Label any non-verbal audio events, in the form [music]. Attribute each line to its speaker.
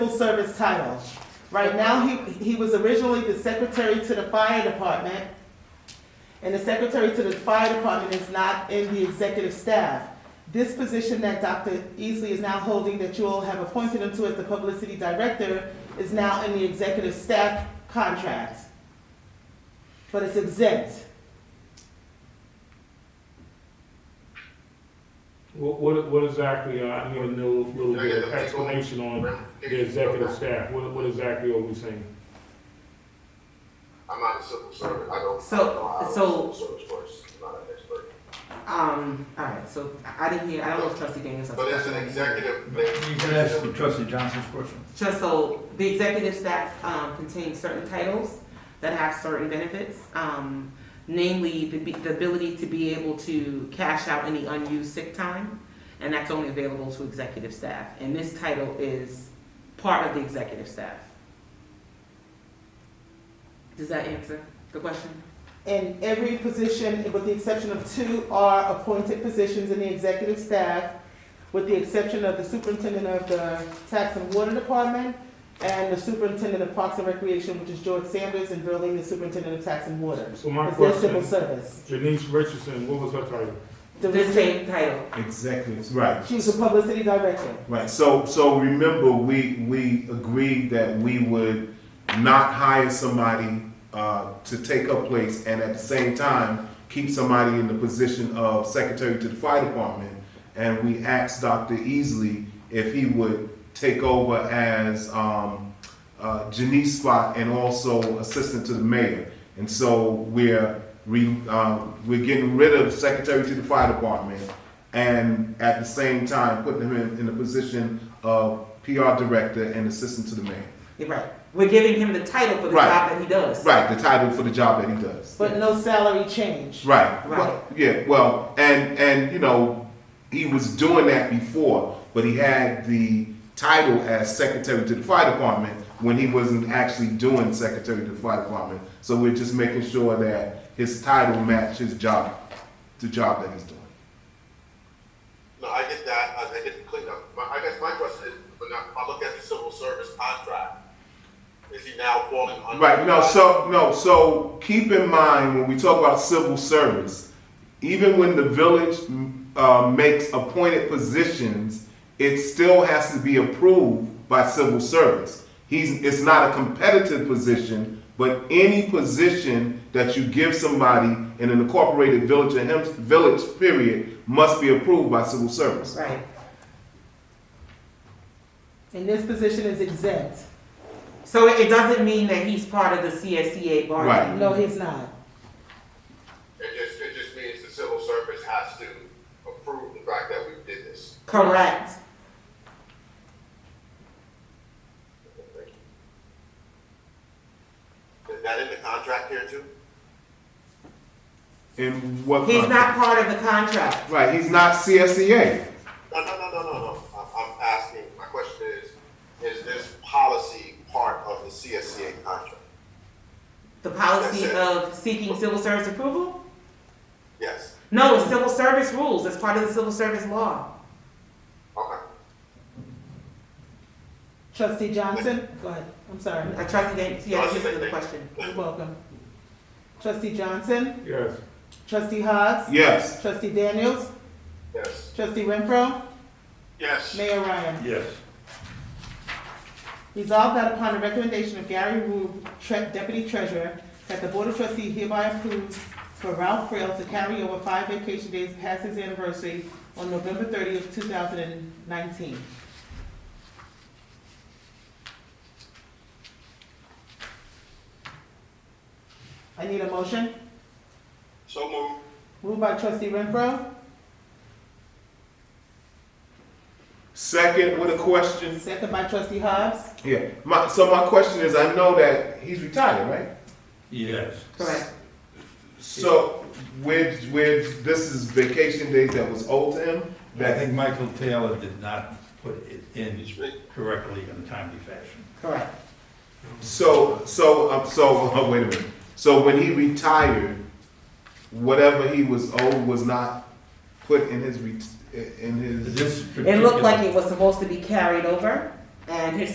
Speaker 1: civil service title. Right now, he, he was originally the secretary to the fire department, and the secretary to the fire department is not in the executive staff. This position that Dr. Easley is now holding, that you all have appointed him to as the publicity director, is now in the executive staff contract. But it's exempt.
Speaker 2: What, what, what exactly, uh, I need a little, little bit of explanation on the executive staff, what, what exactly are we saying?
Speaker 3: I'm not a civil servant, I don't.
Speaker 4: So-
Speaker 3: I don't know how the civil
Speaker 4: so-
Speaker 3: service works. I'm not an expert.
Speaker 4: Um, all right, so I I didn't hear, I don't know if trustee Daniels. has-
Speaker 3: But it's an executive thing.
Speaker 5: You can ask for trustee Johnson's question.
Speaker 4: Just so, the executive staff, um, contains certain titles that have certain benefits, um, namely the, be- the ability to be able to cash out any unused sick time, and that's only available to executive staff, and this title is part of the executive staff. Does that answer the question?
Speaker 1: And every position, with the exception of two, are appointed positions in the executive staff, with the exception of the superintendent of the Tax and Water Department and the superintendent of Parks and Recreation, which is George Sanders, and Burley, the superintendent of Tax and Water.
Speaker 2: So my
Speaker 1: It's their civil
Speaker 2: question,
Speaker 1: service.
Speaker 2: Janice Richardson, what was her title?
Speaker 4: The same title,
Speaker 6: Exactly, right.
Speaker 1: She was the publicity director.
Speaker 6: Right, so, so remember, we, we agreed that we would not hire somebody, uh, to take her place and at the same time, keep somebody in the position of secretary to the fire department. And we asked Dr. Easley if he would take over as, um, uh, Janice's spot and also assistant to the mayor. And so we're, re, um, we're getting rid of secretary to the fire department and at the same time putting him in, in the position of PR director and assistant to the mayor.
Speaker 4: You're right, we're giving him the title for the
Speaker 6: Right.
Speaker 4: job that he does.
Speaker 6: Right, the title for the job that he does.
Speaker 1: But no salary change.
Speaker 6: Right.
Speaker 4: Right.
Speaker 6: Well, yeah. Well, and and you know, he was doing that before, but he had the title as secretary to the fire department when he wasn't actually doing secretary to the fire department. So we're just making sure that his title match his job, the job that he's doing.
Speaker 3: No, I get that, I, I get the cleanup, but I guess my question is, when I, I look at the civil service contract, is he now falling under?
Speaker 6: Right. No. So no. So keep in mind when we talk about civil service, even when the village uh, makes appointed positions, it still has to be approved by civil service. He's. It's not a competitive position, but any position that you give somebody in an incorporated village or hem- village period must be approved by civil service.
Speaker 4: Right,
Speaker 1: And this position is exempt.
Speaker 4: so it it doesn't mean that he's part of the CSCA bargaining.
Speaker 6: Right.
Speaker 1: No, he's not.
Speaker 3: It just, it just means the civil service has to approve the fact that we did this.
Speaker 4: Correct.
Speaker 3: Is that in the contract here too?
Speaker 6: And what?
Speaker 4: He's not part of the contract.
Speaker 6: Right. He's not E CSEA.
Speaker 3: No, no, no, no, no, no. I'm, I'm asking, my question is, is this policy part of the CSCA contract?
Speaker 4: The policy
Speaker 3: That's it.
Speaker 4: of seeking civil service approval?
Speaker 3: Yes,
Speaker 4: No, it's civil service rules. It's part of the civil service law.
Speaker 3: okay.
Speaker 1: Trustee Johnson? Go ahead. I'm sorry.
Speaker 4: I trust you, Dan-
Speaker 3: Oh,
Speaker 4: yeah, answer the question.
Speaker 1: You're welcome. Trustee Johnson?
Speaker 2: Yes,
Speaker 1: Trustee Hogs?
Speaker 6: Yes.
Speaker 1: Trustee Daniels?
Speaker 3: Yes.
Speaker 1: Trustee Renfro?
Speaker 3: Yes.
Speaker 1: Mayor Ryan.
Speaker 2: yes.
Speaker 1: Resolved that upon the recommendation of Gary Rube, Tre- Deputy Treasurer, that the Board of Trustees hereby approves for Ralph Frail to carry over five vacation days past his anniversary on November thirtieth, two thousand and nineteen. I need a motion.
Speaker 3: So moved.
Speaker 1: Moved by trustee Renfro,
Speaker 6: Second with a question.
Speaker 1: second by trustee Hobbs.
Speaker 6: Yeah. My, so my question is, I know that he's retired, right?
Speaker 5: Yes.
Speaker 4: Correct.
Speaker 6: So with with this is vacation days that was owed to him.
Speaker 5: I think Michael Taylor did not put it in
Speaker 3: He's right.
Speaker 5: correctly in a timely fashion.
Speaker 4: Correct.
Speaker 6: So so um, so [laughs] uh, wait a minute. So when he retired, whatever he was owed was not put in his ret- in his.
Speaker 5: This
Speaker 4: It looked
Speaker 5: particular-
Speaker 4: like it was supposed to be carried over, and his